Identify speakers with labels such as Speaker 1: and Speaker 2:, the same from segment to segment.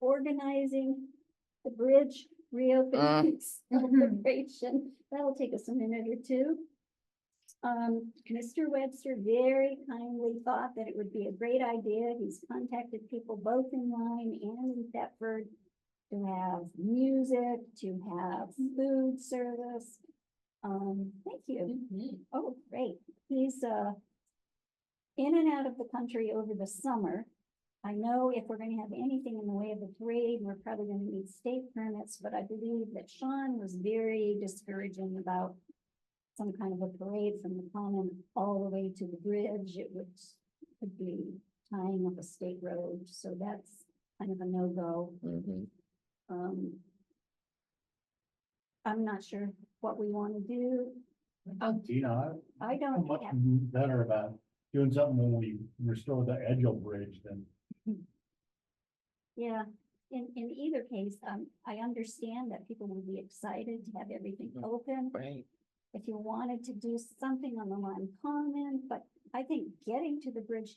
Speaker 1: organizing the bridge reopening
Speaker 2: Mhm.
Speaker 1: celebration. That'll take us a minute or two. Um, Mr. Webster very kindly thought that it would be a great idea. He's contacted people both in line and in Thetford to have music, to have food service. Um, thank you. Oh, great. He's, uh, in and out of the country over the summer. I know if we're gonna have anything in the way of a parade, we're probably gonna need state permits, but I believe that Sean was very discouraging about some kind of a parade from the common all the way to the bridge. It would, could be tying up a state road, so that's kind of a no-go.
Speaker 2: Mhm.
Speaker 1: Um, I'm not sure what we wanna do.
Speaker 2: Oh.
Speaker 3: You know,
Speaker 1: I
Speaker 3: I'm
Speaker 1: don't
Speaker 3: much
Speaker 1: have
Speaker 3: better about doing something when we restore the Edgeo Bridge than
Speaker 1: Yeah, in, in either case, um, I understand that people would be excited to have everything
Speaker 2: Mhm.
Speaker 1: open.
Speaker 2: Right.
Speaker 1: If you wanted to do something on the line common, but I think getting to the bridge.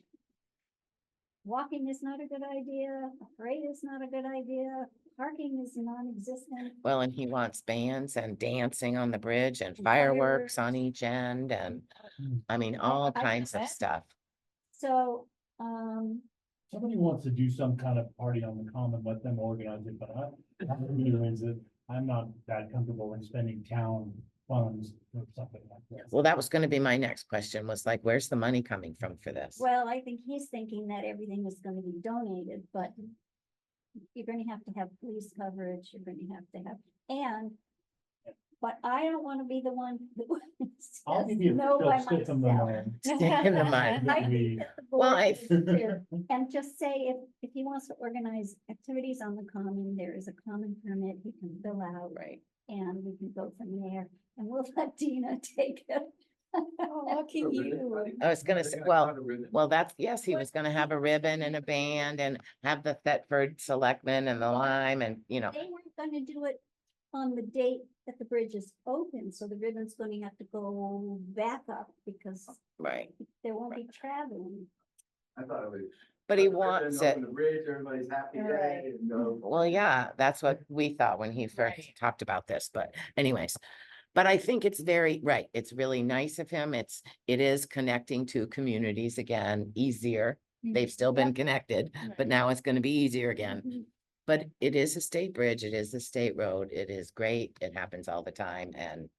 Speaker 1: Walking is not a good idea, a parade is not a good idea, parking is non-existent.
Speaker 2: Well, and he wants bands and dancing on the bridge and fireworks on each end and,
Speaker 3: Hmm.
Speaker 2: I mean, all
Speaker 1: I
Speaker 2: kinds of
Speaker 1: bet.
Speaker 2: stuff.
Speaker 1: So, um,
Speaker 3: somebody wants to do some kind of party on the common, let them organize it, but I. I'm the leader is that I'm not that comfortable in spending town funds or something like that.
Speaker 2: Well, that was gonna be my next question was like, where's the money coming from for this?
Speaker 1: well, I think he's thinking that everything is gonna be donated, but. You're gonna have to have police coverage, you're gonna have to have, and. But I don't wanna be the one. that
Speaker 3: I'll
Speaker 1: says
Speaker 3: give you
Speaker 1: no
Speaker 3: a
Speaker 1: by
Speaker 3: stick in the
Speaker 1: myself.
Speaker 3: mud.
Speaker 2: Stick in the mud.
Speaker 1: I
Speaker 3: We-
Speaker 1: think that the
Speaker 2: Well,
Speaker 1: board
Speaker 2: I-
Speaker 1: needs to- And just say if, if he wants to organize activities on the common, there is a common permit he can fill out
Speaker 2: Right.
Speaker 1: and we can go from there. And we'll let Dina take it.
Speaker 4: Oh,
Speaker 1: Lucky you.
Speaker 2: I was gonna say, well, well, that's, yes, he was gonna have a ribbon and a band and have the Thetford selectmen and the lime and, you know,
Speaker 1: They weren't gonna do it on the date that the bridge is open, so the ribbon's gonna have to go back up because
Speaker 2: right.
Speaker 1: there won't be traveling.
Speaker 5: I thought it was.
Speaker 2: But he wants it.
Speaker 5: The bridge, everybody's happy
Speaker 4: Right.
Speaker 5: day and go.
Speaker 2: Well, yeah, that's what we thought when he first
Speaker 4: Right.
Speaker 2: talked about this, but anyways. But I think it's very, right, it's really nice of him. It's, it is connecting to communities again easier. They've still been connected, but now it's gonna be easier again.
Speaker 1: Mhm.
Speaker 2: But it is a state bridge, it is a state road, it is great, it happens all the time and,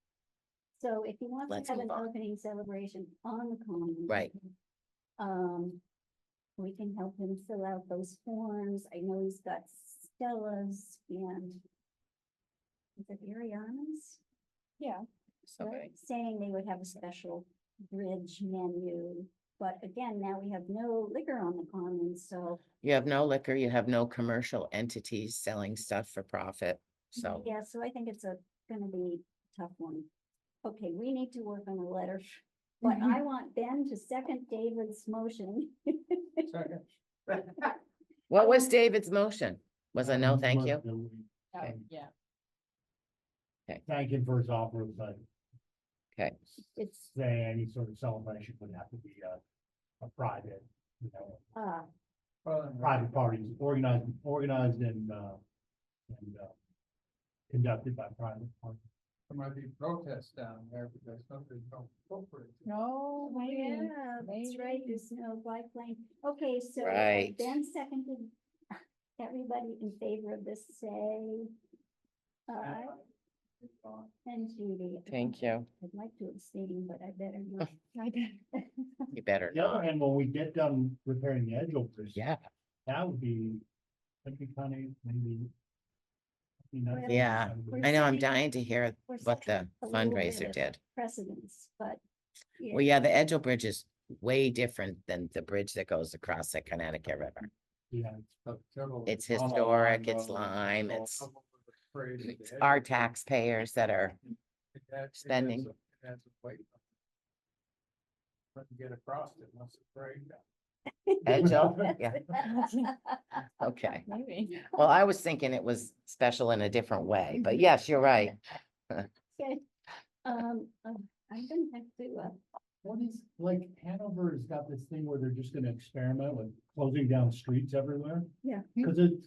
Speaker 1: So if he wants
Speaker 2: Let's
Speaker 1: to have an
Speaker 2: move on.
Speaker 1: opening celebration on the common.
Speaker 2: right,
Speaker 1: Um, we can help him fill out those forms. I know he's got Stella's and is it Ariana's? Yeah.
Speaker 2: Okay.
Speaker 1: Saying they would have a special bridge menu, but again, now we have no liquor on the common, so
Speaker 2: you have no liquor, you have no commercial entities selling stuff for profit. So,
Speaker 1: yeah, so I think it's a, gonna be a tough one. Okay, we need to work on a letter, but
Speaker 2: Mm-hmm.
Speaker 1: I want Ben to second David's motion.
Speaker 2: what was David's motion? Was a no, thank you? Okay.
Speaker 4: Yeah.
Speaker 3: Thank him for his offer, but
Speaker 2: Okay,
Speaker 1: It's,
Speaker 3: say any sort of celebration would have to be a, a private, you know,
Speaker 4: Ah,
Speaker 1: uh,
Speaker 3: private parties organized, organized and, uh, and, uh, conducted by private parties.
Speaker 5: There might be protests down there because somebody's going corporate.
Speaker 1: Oh,
Speaker 4: No way.
Speaker 1: yeah, that's right, there's no biplane. Okay, so uh,
Speaker 2: Right.
Speaker 1: Ben seconded. Everybody in favor of this, say. Aye, and Judy.
Speaker 2: thank you.
Speaker 1: I'd like to abstain, but I better not.
Speaker 2: You better
Speaker 3: The other
Speaker 2: not.
Speaker 3: hand, when we get done repairing the edge over,
Speaker 2: Yeah,
Speaker 3: that would be, that'd be kind of maybe. you know,
Speaker 1: Well,
Speaker 2: Yeah,
Speaker 1: We're
Speaker 2: I know, I'm
Speaker 1: setting-
Speaker 2: dying to hear
Speaker 1: we're
Speaker 2: what the
Speaker 1: setting a little bit
Speaker 2: fundraiser
Speaker 1: of
Speaker 2: did.
Speaker 1: Precedence, but.
Speaker 2: Well, yeah, the Edgeo Bridge is way different than the bridge that goes across the Connecticut River.
Speaker 3: Yeah,
Speaker 2: It's
Speaker 5: Oh,
Speaker 2: historic, it's
Speaker 5: well,
Speaker 2: lime,
Speaker 5: well,
Speaker 2: it's,
Speaker 5: some of the parade
Speaker 2: it's
Speaker 5: is-
Speaker 2: our taxpayers that are,
Speaker 5: it has- it has
Speaker 2: spending.
Speaker 5: a- it has a weight on it. Couldn't Get across it once it's sprayed.
Speaker 2: Edgeo, yeah, okay.
Speaker 4: Maybe.
Speaker 2: Well, I was thinking it was special in a different way, but yes, you're right.
Speaker 1: Okay, um, um, I'm gonna have to, uh,
Speaker 3: What is, like Hanover has got this thing where they're just gonna experiment with closing down streets everywhere.
Speaker 1: Yeah.
Speaker 3: Cause it's